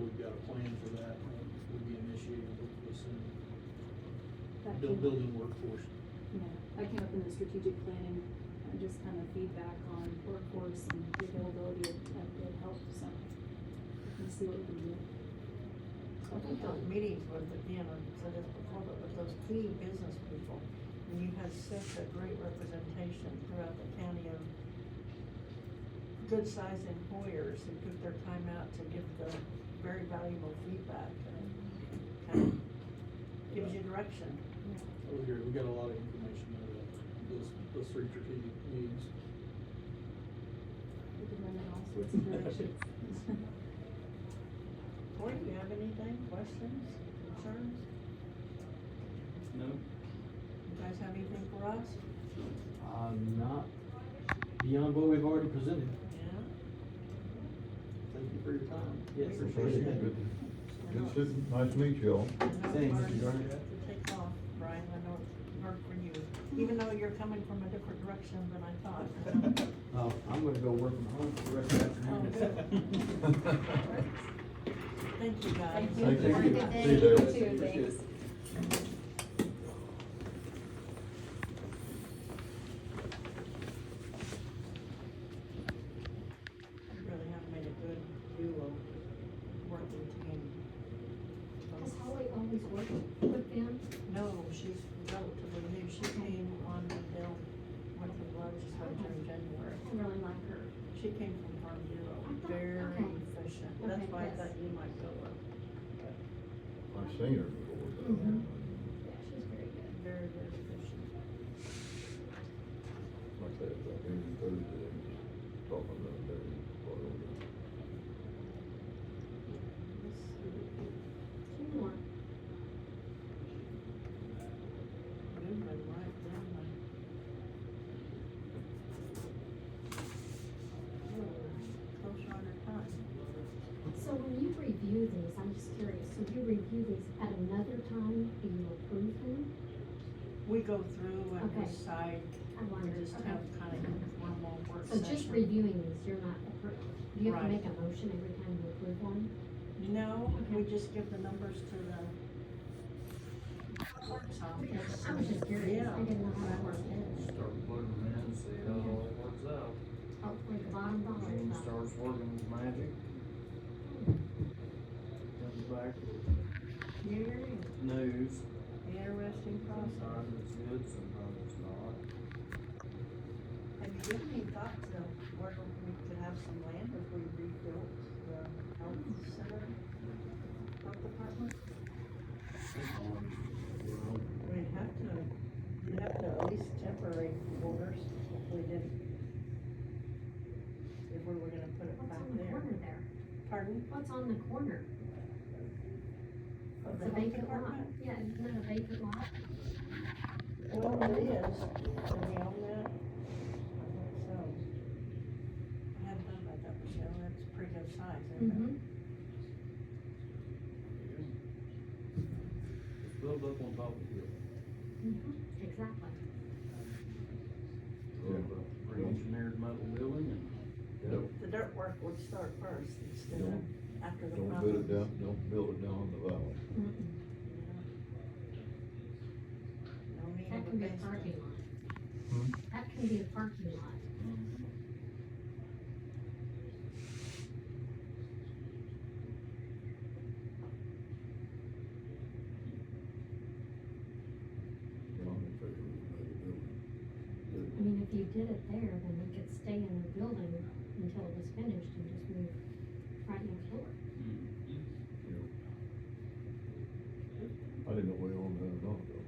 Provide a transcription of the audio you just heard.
we've got a plan for that, we'll be initiating hopefully soon. That Build, came up- building workforce. Yeah, that came up in the strategic planning, uh, just kind of feedback on workforce and the availability of, of good help, so we can see what we can do. I think those meetings were, you know, I said this before, but with those key business people, and you had such a great representation throughout the county of good-sized employers who took their time out to give the very valuable feedback and kind of gives you direction. Over here, we got a lot of information out of those, those three strategic meetings. We can run in all sorts of directions. Corey, do you have anything, questions, concerns? No, You guys have anything for us? uh, not beyond what we've already presented. Yeah? Thank you for your time. Yes, We appreciate appreciate it. Yes, sir. nice to meet you all. Thanks, Brian, Mr. Garner. To take off, Brian, I know it's hard for you, even though you're coming from a different direction than I thought. Uh, I'm gonna go work from home for the rest of the afternoon. Thank you, guys. you. Thank you. Have a good See day. you there. You too, thanks. You Really have made a good duo working Has team. Holly always worked with them? No, she's relatively new, she came on the bill, went to the legislature in January. I really like her. She came from Farm Bureau, I thought- very okay. efficient, that's Okay, why I yes. thought you might go up, I've seen her before. Mhm. Yeah, she's very good. very, very efficient. but Like that, that meeting Thursday, just talking about that. before I go. Let's see. Two more. Moving right down my. Oh, Close on her time. So when you review these, I'm just curious, so you review these at another time, do you approve them? We go through and Okay. decide, I we wonder, just have okay. kind of informal work So just session. reviewing these, you're not, appro- do you have to Right. make a motion every time you approve one? No, we Okay. just give the numbers to the workshop. Okay, I was just curious, I Um, Yeah. didn't know how that worked. Start plugging them in, see how it all works out. Oh, Hopefully the bottom dollar. Gene is up. starts working his magic. Comes back with Very news, interesting process. sometimes it's good, sometimes it's not. Have you given any thought to where we could have some land if we rebuilt the health center, health department? We'd have to, we'd have to at least temporary orders if we didn't. If we were gonna put it What's back on the there. corner there? Pardon? What's on the corner? Of It's the Mm-hmm. a health vacant lot. department? Yeah, isn't that a vacant lot? Well, it is. Can we own that? I think so. I hadn't thought about that, Michelle. That's pretty good size, isn't it? Mm-hmm. It's built up on top of it. Mm-hmm. Exactly. Built up a Pre-engineered metal building and. Don't, The dirt work would start first instead of after the don't build problems. it down, don't build it down in the valley. No need That of can be a basement. parking lot. That can be a parking lot. You know, I'm in favor of another building. I mean, if you did it there, then it could stay in the building until it was finished and just move right next door. hmm. I didn't know we owned that or not, though.